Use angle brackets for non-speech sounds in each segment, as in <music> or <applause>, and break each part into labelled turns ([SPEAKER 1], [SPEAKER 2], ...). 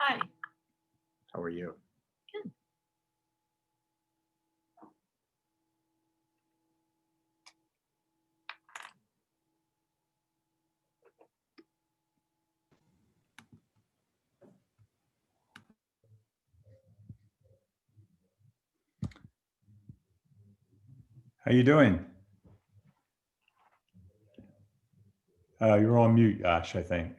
[SPEAKER 1] Hi,
[SPEAKER 2] How are you?
[SPEAKER 3] How you doing? Uh, you're on mute, Ash, I think.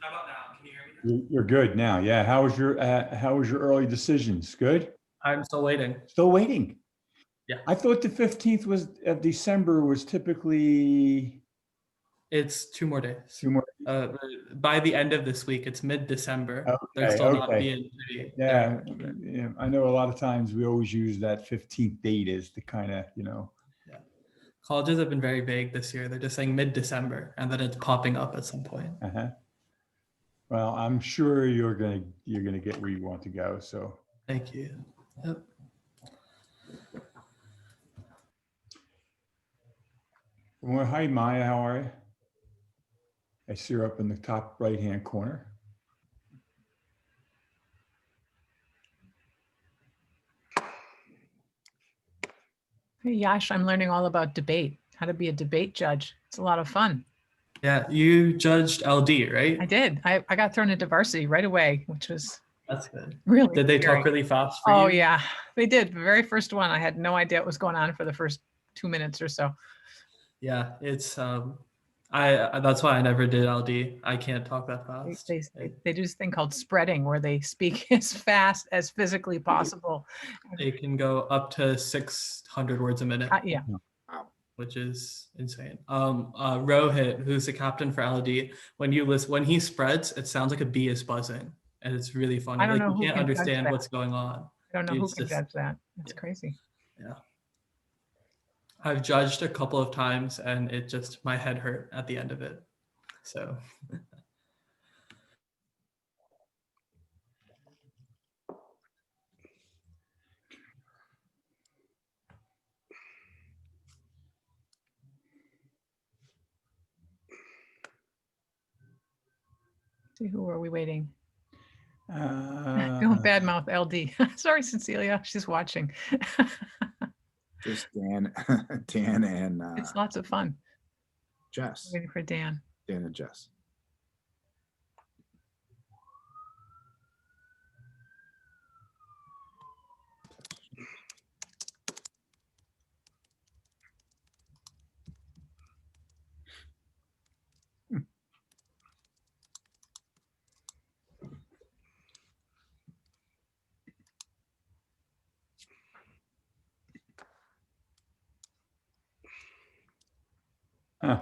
[SPEAKER 4] How about now? Can you hear me? now?
[SPEAKER 3] You're, you're good now. Yeah. How was your, uh, how was your early decisions? Good?
[SPEAKER 4] I'm still waiting.
[SPEAKER 3] Still waiting?
[SPEAKER 4] Yeah.
[SPEAKER 3] I thought the 15th was, of December was typically
[SPEAKER 4] It's two more days.
[SPEAKER 3] two more.
[SPEAKER 4] Uh, by the end of this week, it's mid-December. They're
[SPEAKER 3] Okay,
[SPEAKER 4] still not
[SPEAKER 3] okay.
[SPEAKER 4] being. pretty-
[SPEAKER 3] Yeah, yeah. I know a lot of times we always use that 15th date as the kind of, you know,
[SPEAKER 4] Colleges have been very vague this year. They're just saying mid-December, and then it's popping up at some point.
[SPEAKER 3] uh-huh. Well, I'm sure you're gonna, you're gonna get where you want to go. So
[SPEAKER 4] Thank you. Yep.
[SPEAKER 3] Well, hi, Maya. How are you? I see her up in the top right-hand corner.
[SPEAKER 1] Hey, Yash, I'm learning all about debate, how to be a debate judge. It's a lot of fun.
[SPEAKER 4] Yeah, you judged LD,
[SPEAKER 1] I
[SPEAKER 4] right?
[SPEAKER 1] did. I, I got thrown into varsity right away, which was
[SPEAKER 4] That's good.
[SPEAKER 1] really.
[SPEAKER 4] Did they
[SPEAKER 1] scary.
[SPEAKER 4] talk really fast for you?
[SPEAKER 1] Oh, yeah, they did. The very first one, I had no idea what was going on for the first two minutes or so.
[SPEAKER 4] Yeah, it's um, I, I that's why I never did LD. I can't talk that
[SPEAKER 1] They,
[SPEAKER 4] fast.
[SPEAKER 1] they, they- they do this thing called spreading where they speak <laughs> as fast as physically possible.
[SPEAKER 4] It can go up to 600 words a minute.
[SPEAKER 1] Uh, yeah,
[SPEAKER 4] which is insane. Um, uh, Rohit, who's the captain for LD, when you listen, when he spreads, it sounds like a bee is buzzing, and it's really funny.
[SPEAKER 1] I don't
[SPEAKER 4] like
[SPEAKER 1] know who
[SPEAKER 4] you can't
[SPEAKER 1] can judge
[SPEAKER 4] understand
[SPEAKER 1] that.
[SPEAKER 4] what's going on.
[SPEAKER 1] I don't know who
[SPEAKER 4] It's
[SPEAKER 1] can
[SPEAKER 4] just-
[SPEAKER 1] judge that. That's
[SPEAKER 4] yeah.
[SPEAKER 1] crazy.
[SPEAKER 4] I've judged a couple of times, and it just my head hurt at the end of it. So
[SPEAKER 1] See, who are we waiting? <laughs>
[SPEAKER 3] Uh,
[SPEAKER 4] Uh,
[SPEAKER 1] Don't badmouth LD. <laughs> Sorry, Cecilia, she's watching.
[SPEAKER 2] Just Dan, <laughs> Dan and uh,
[SPEAKER 1] It's lots of fun.
[SPEAKER 2] Jess,
[SPEAKER 1] Waiting for Dan.
[SPEAKER 2] Dan and Jess.
[SPEAKER 3] huh.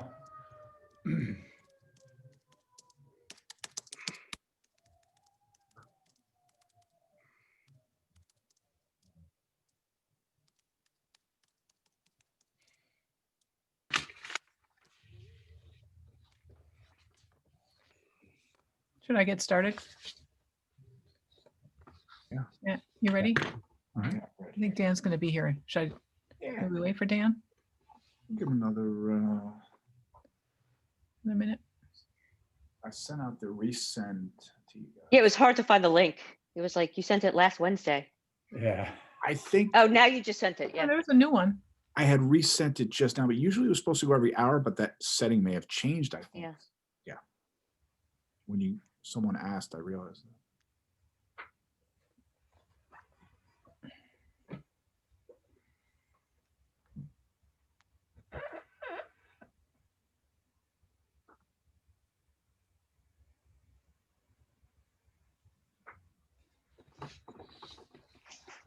[SPEAKER 1] Should I get started?
[SPEAKER 2] Yeah.
[SPEAKER 1] Yeah, you ready?
[SPEAKER 2] All right.
[SPEAKER 1] I think Dan's gonna be here. Should I,
[SPEAKER 2] Yeah,
[SPEAKER 1] should we wait for Dan
[SPEAKER 2] give him another, uh,
[SPEAKER 1] in a minute?
[SPEAKER 2] I sent out the resend to you. guys.
[SPEAKER 5] Yeah, it was hard to find the link. It was like you sent it last Wednesday.
[SPEAKER 3] <laughs> Yeah.
[SPEAKER 2] I think
[SPEAKER 5] Oh, now you just sent it.
[SPEAKER 1] Yeah,
[SPEAKER 5] Yeah.
[SPEAKER 1] there was a new one.
[SPEAKER 2] I had resent it just now, but usually it was supposed to go every hour, but that setting may have changed, I think.
[SPEAKER 5] Yeah.
[SPEAKER 2] Yeah. When you, someone asked, I realized.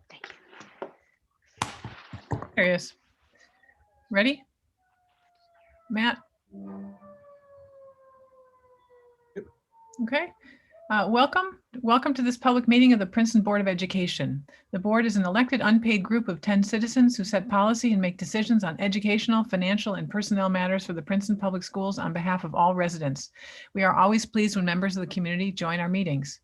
[SPEAKER 5] Thank you.
[SPEAKER 1] There he is. Ready? Matt? Okay. Uh, Welcome, welcome to this public meeting of the Princeton Board of Education. The board is an elected unpaid group of 10 citizens who set policy and make decisions on educational, financial, and personnel matters for the Princeton Public Schools on behalf of all residents. We are always pleased when members of the community join our meetings.